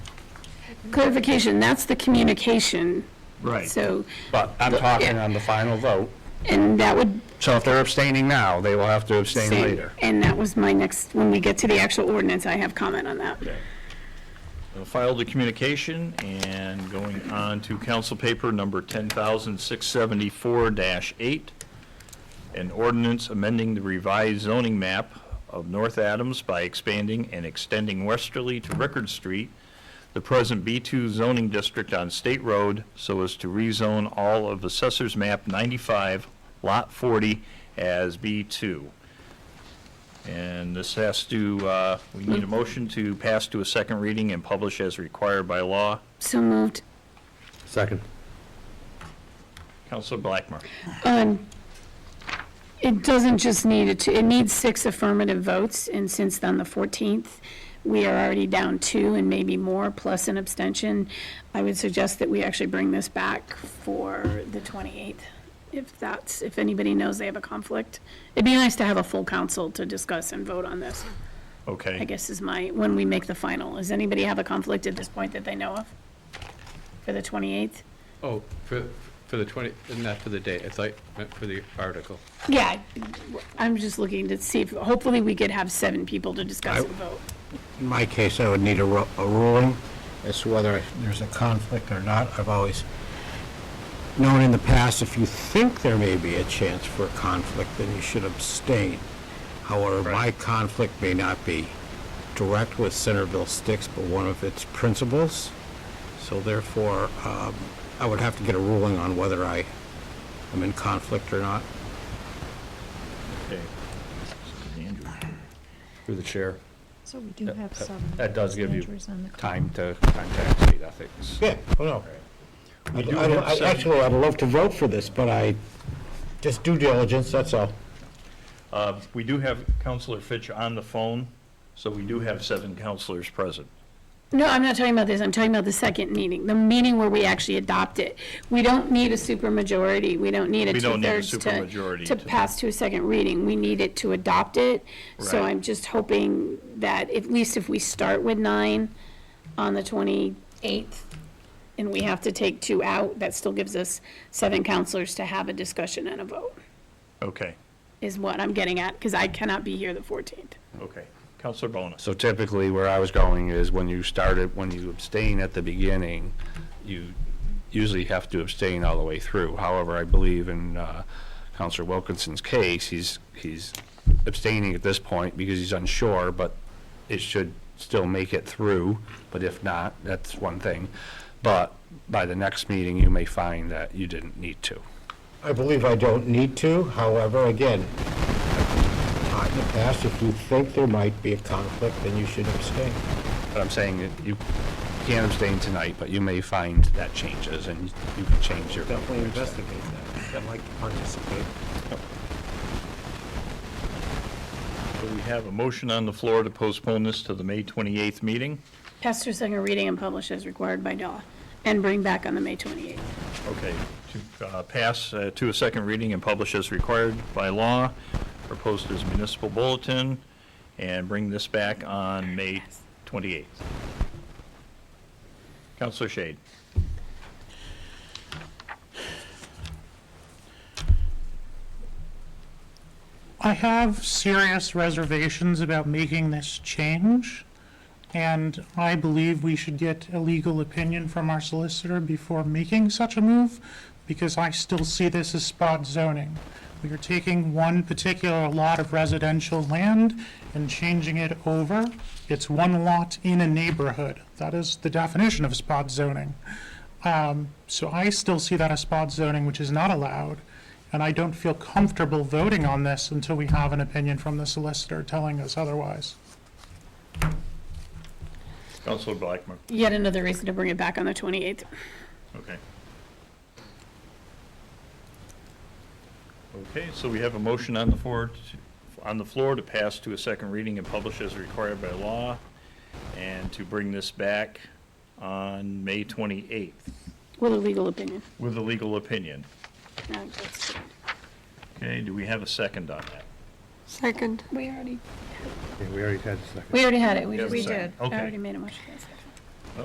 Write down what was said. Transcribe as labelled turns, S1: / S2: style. S1: clarification, that's the communication,
S2: Right.
S1: so,
S2: But I'm talking on the final vote.
S1: and that would
S2: So if they're abstaining now, they will have to abstain
S1: Same.
S2: later.
S1: And that was my next, when we get to the actual ordinance, I have comment on that.
S3: We'll File the communication and going on to council paper number 10,674-8, an ordinance amending the revised zoning map of North Adams by expanding and extending westerly to Rickard Street, the present B2 zoning district on State Road, so as to rezone all of Assessor's Map 95, Lot 40, as B2. And this has to, uh, we need a motion to pass to a second reading and publish as required by law.
S1: So moved.
S4: Second.
S3: Counselor Blackmer.
S1: Um, It doesn't just need it, to- it needs six affirmative votes, and since on the 14th, we are already down two and maybe more, plus an abstention. I would suggest that we actually bring this back for the 28th, if that's, if anybody knows they have a conflict. It'd be nice to have a full council to discuss and vote on this, I
S3: Okay.
S1: guess is my, when we make the final. Does anybody have a conflict at this point that they know of? For the 28th?
S4: Oh, for, for the 20, not for the day, it's like, meant for the article.
S1: Yeah, I'm just looking to see if, hopefully we could have seven people to discuss and vote.
S5: In my case, I would need a ru- a ruling as to whether there's a conflict or not. I've always known in the past, if you think there may be a chance for a conflict, then you should abstain. However, my conflict may not be direct with Centerville Sticks, but one of its principles. So therefore, um, I would have to get a ruling on whether I am in conflict or not.
S3: Okay. Andrew.
S4: Through the chair.
S6: So we do have some.
S4: That does give you
S6: Andrew's on the call.
S4: time to contact state ethics.
S5: Yeah, oh no. I'd-
S3: do
S5: I'd-
S3: have
S5: I'd-
S3: some-
S5: Actually, I'd love to vote for this, but I, just due diligence, that's all.
S3: Uh, We do have Counselor Fitch on the phone, so we do have seven counselors present.
S1: No, I'm not talking about this, I'm talking about the second meeting, the meeting where we actually adopt it. We don't need a supermajority, we don't need a
S3: We don't need a
S1: two-thirds to,
S3: supermajority
S1: to
S3: to-
S1: pass to a second reading. We need it to adopt it. So
S3: Right.
S1: I'm just hoping that at least if we start with nine on the 28th, and we have to take two out, that still gives us seven counselors to have a discussion and a vote,
S3: Okay,
S1: is what I'm getting at, because I cannot be here the 14th.
S3: okay. Counselor Bonus.
S2: So typically, where I was going is when you started, when you abstain at the beginning, you usually have to abstain all the way through. However, I believe in uh, Counselor Wilkinson's case, he's, he's abstaining at this point because he's unsure, but it should still make it through, but if not, that's one thing. But by the next meeting, you may find that you didn't need to.
S5: I believe I don't need to, however, again, I've taught in the past, if you think there might be a conflict, then you should abstain.
S2: But I'm saying that you can abstain tonight, but you may find that changes and you can change your vote.
S5: investigate that. I'd like to participate.
S3: So we have a motion on the floor to postpone this to the May 28th meeting.
S1: Pass to a second reading and publish as required by law, and bring back on the May 28th.
S3: Okay, to uh, pass uh, to a second reading and publish as required by law, or post as municipal bulletin, and bring this back on May 28th. Counselor Shade.
S7: I have serious reservations about making this change, and I believe we should get a legal opinion from our solicitor before making such a move, because I still see this as spot zoning. We are taking one particular lot of residential land and changing it over. It's one lot in a neighborhood. That is the definition of spot zoning. Um, So I still see that as spot zoning, which is not allowed, and I don't feel comfortable voting on this until we have an opinion from the solicitor telling us otherwise.
S3: Counselor Blackmer.
S1: Yet another reason to bring it back on the 28th.
S3: Okay. Okay, so we have a motion on the floor, to- on the floor to pass to a second reading and publish as required by law, and to bring this back on May 28th
S1: With a legal opinion.
S3: with a legal opinion.
S1: No, that's-
S3: Okay, do we have a second on that?
S1: We already,
S4: We already had the second.
S1: we already had it. We
S3: Yeah,
S1: just-
S3: we did.
S1: I
S3: Okay.
S1: already made a motion.